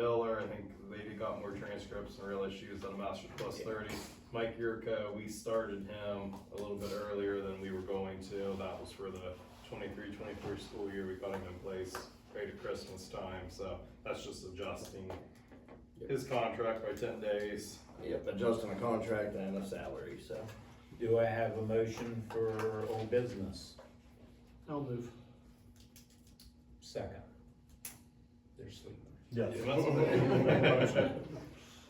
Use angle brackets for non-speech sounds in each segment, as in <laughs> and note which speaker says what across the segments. Speaker 1: Miller, I think they got more transcripts and real issues than a master's plus thirty. Mike Yurka, we started him a little bit earlier than we were going to, that was for the 23-24 school year, we got him in place right at Christmas time, so that's just adjusting his contract by ten days.
Speaker 2: Yep, adjusting the contract and the salary, so.
Speaker 3: Do I have a motion for old business?
Speaker 4: I'll move.
Speaker 3: Second. They're sleeping.
Speaker 5: Yes.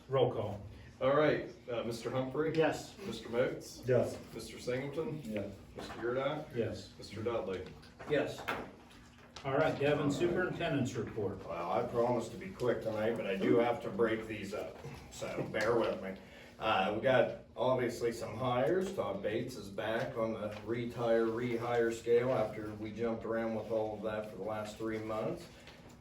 Speaker 3: Roll call.
Speaker 1: <laughs> All right, uh, Mr. Humphrey?
Speaker 4: Yes.
Speaker 1: Mr. Moats?
Speaker 5: Yes.
Speaker 1: Mr. Singleton?
Speaker 5: Yes.
Speaker 1: Mr. Yurdak?
Speaker 3: Yes.
Speaker 1: Mr. Dudley?
Speaker 2: Yes.
Speaker 3: All right, Devin, superintendent's report.
Speaker 2: Well, I promised to be quick tonight, but I do have to break these up, so bear with me. Uh, we got obviously some hires, Todd Bates is back on the retire, rehire scale after we jumped around with all of that for the last three months.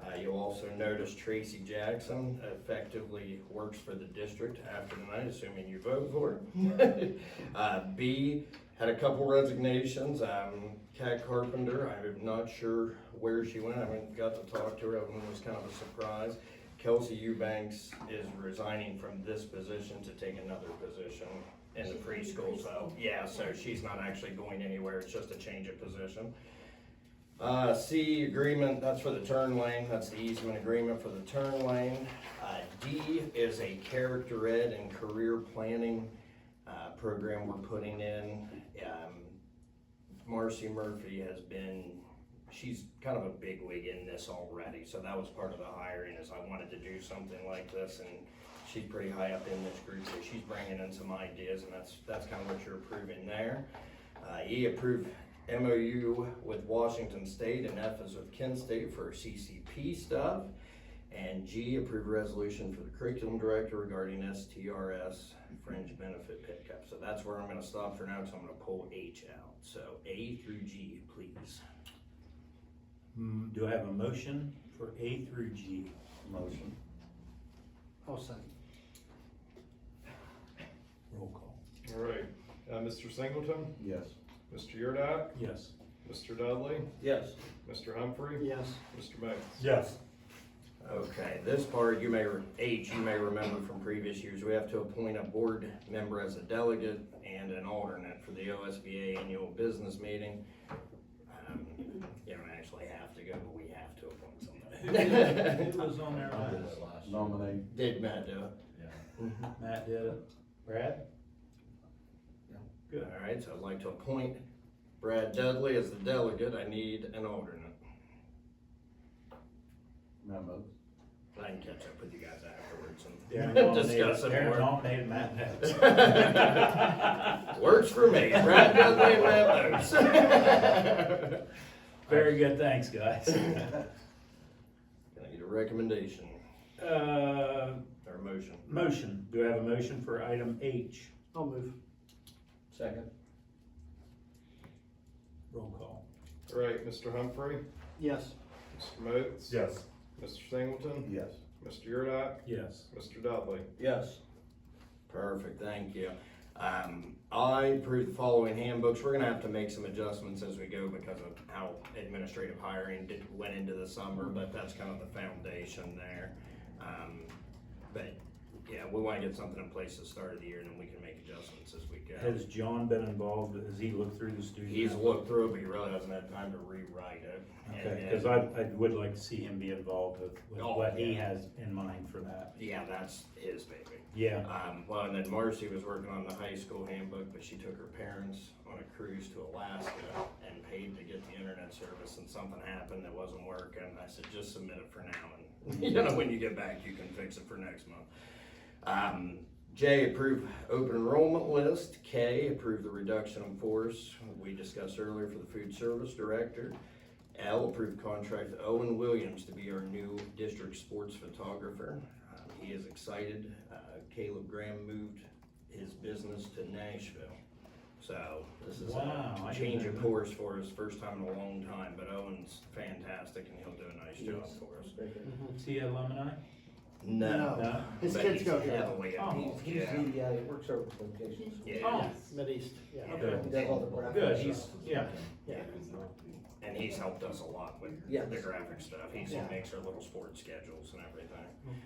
Speaker 2: Uh, you'll also notice Tracy Jackson effectively works for the district after tonight, assuming you vote for her. <laughs> Uh, B, had a couple resignations, um, Kat Carpenter, I'm not sure where she went, I haven't got to talk to her, it was kind of a surprise. Kelsey Eubanks is resigning from this position to take another position in the preschool, so, yeah, so she's not actually going anywhere, it's just a change of position. Uh, C agreement, that's for the turn lane, that's the easement agreement for the turn lane. Uh, D is a character ed and career planning, uh, program we're putting in. Um, Marcy Murphy has been, she's kind of a big wig in this already, so that was part of the hiring is I wanted to do something like this and she's pretty high up in this group, so she's bringing in some ideas and that's, that's kind of what you're approving there. Uh, E, approve MOU with Washington State and F is with Kent State for CCP stuff. And G, approve resolution for the curriculum director regarding STRS fringe benefit pickup. So that's where I'm gonna stop for now, because I'm gonna pull H out. So A through G, please.
Speaker 3: Hmm, Do I have a motion for A through G?
Speaker 5: Motion.
Speaker 4: I'll second.
Speaker 3: Roll call.
Speaker 1: All right, uh, Mr. Singleton?
Speaker 5: Yes.
Speaker 1: Mr. Yurdak?
Speaker 3: Yes.
Speaker 1: Mr. Dudley?
Speaker 2: Yes.
Speaker 1: Mr. Humphrey?
Speaker 4: Yes.
Speaker 1: Mr. Moats?
Speaker 5: Yes.
Speaker 2: Okay, this part you may, re- H, you may remember from previous years, we have to appoint a board member as a delegate and an alternate for the OSBA annual business meeting. Um, You don't actually have to go, but we have to appoint somebody. <laughs>
Speaker 3: <laughs> Who was on there last?
Speaker 5: Nominate.
Speaker 2: Did Matt do it?
Speaker 3: Matt did it. Brad? Good.
Speaker 2: All right, so I'd like to appoint Brad Dudley as the delegate. I need an alternate.
Speaker 5: Memos.
Speaker 2: I can catch up with you guys afterwards <laughs>
Speaker 3: Darren
Speaker 2: and
Speaker 3: nominated-
Speaker 2: discuss it
Speaker 3: Darren
Speaker 2: more.
Speaker 3: nominated <laughs> Matt.
Speaker 2: Works for me, Brad Dudley and Matt <laughs> Moats.
Speaker 3: Very good, thanks, guys. <laughs>
Speaker 2: Can I get a recommendation
Speaker 3: Uh,
Speaker 2: or a motion?
Speaker 3: Motion, do I have a motion for item H?
Speaker 4: I'll move.
Speaker 5: Second.
Speaker 3: Roll call.
Speaker 1: All right, Mr. Humphrey?
Speaker 4: Yes.
Speaker 1: Mr. Moats?
Speaker 5: Yes.
Speaker 1: Mr. Singleton?
Speaker 5: Yes.
Speaker 1: Mr. Yurdak?
Speaker 3: Yes.
Speaker 1: Mr. Dudley?
Speaker 5: Yes.
Speaker 2: Perfect, thank you. Um, I approve the following handbooks. We're gonna have to make some adjustments as we go because of how administrative hiring did, went into the summer, but that's kind of the foundation there. Um, but, yeah, we wanna get something in place at the start of the year and then we can make adjustments as we go.
Speaker 3: Has John been involved, has he looked through the student?
Speaker 2: He's looked through it, but he really hasn't had time to rewrite it.
Speaker 3: Okay,
Speaker 2: And-
Speaker 3: cause I, I would like to see him be involved with, with
Speaker 2: Oh,
Speaker 3: what he
Speaker 2: yeah.
Speaker 3: has in mind for that.
Speaker 2: Yeah, that's his baby.
Speaker 3: Yeah,
Speaker 2: Um, well, and then Marcy was working on the high school handbook, but she took her parents on a cruise to Alaska and paid to get the internet service and something happened that wasn't working. I said, just submit it for now and, <laughs> you know, when you get back, you can fix it for next month. Um, J, approve open enrollment list. K, approve the reduction in force we discussed earlier for the food service director. L, approve contract with Owen Williams to be our new district sports photographer. Um, He is excited. Uh, Caleb Graham moved his business to Nashville. So this is
Speaker 3: Wow, I
Speaker 2: a
Speaker 3: didn't
Speaker 2: change
Speaker 3: know
Speaker 2: of
Speaker 3: that.
Speaker 2: course for us, first time in a long time, but Owen's fantastic and he'll do a nice job for us.
Speaker 3: is he alumni?
Speaker 4: No.
Speaker 3: No?
Speaker 4: His
Speaker 2: but
Speaker 4: kids
Speaker 2: he's
Speaker 4: go here.
Speaker 2: heavily
Speaker 3: Oh,
Speaker 2: involved,
Speaker 6: He's
Speaker 2: yeah.
Speaker 6: the, uh, works over at locations.
Speaker 2: Yeah,
Speaker 3: Oh,
Speaker 4: Mideast, yeah.
Speaker 3: Okay.
Speaker 6: He does all the graphics.
Speaker 3: good, he's, yeah,
Speaker 4: Yeah.
Speaker 2: and he's helped us a lot with
Speaker 6: Yeah.
Speaker 2: the graphic stuff. He's, he
Speaker 4: Yeah.
Speaker 2: makes our little sports schedules and everything.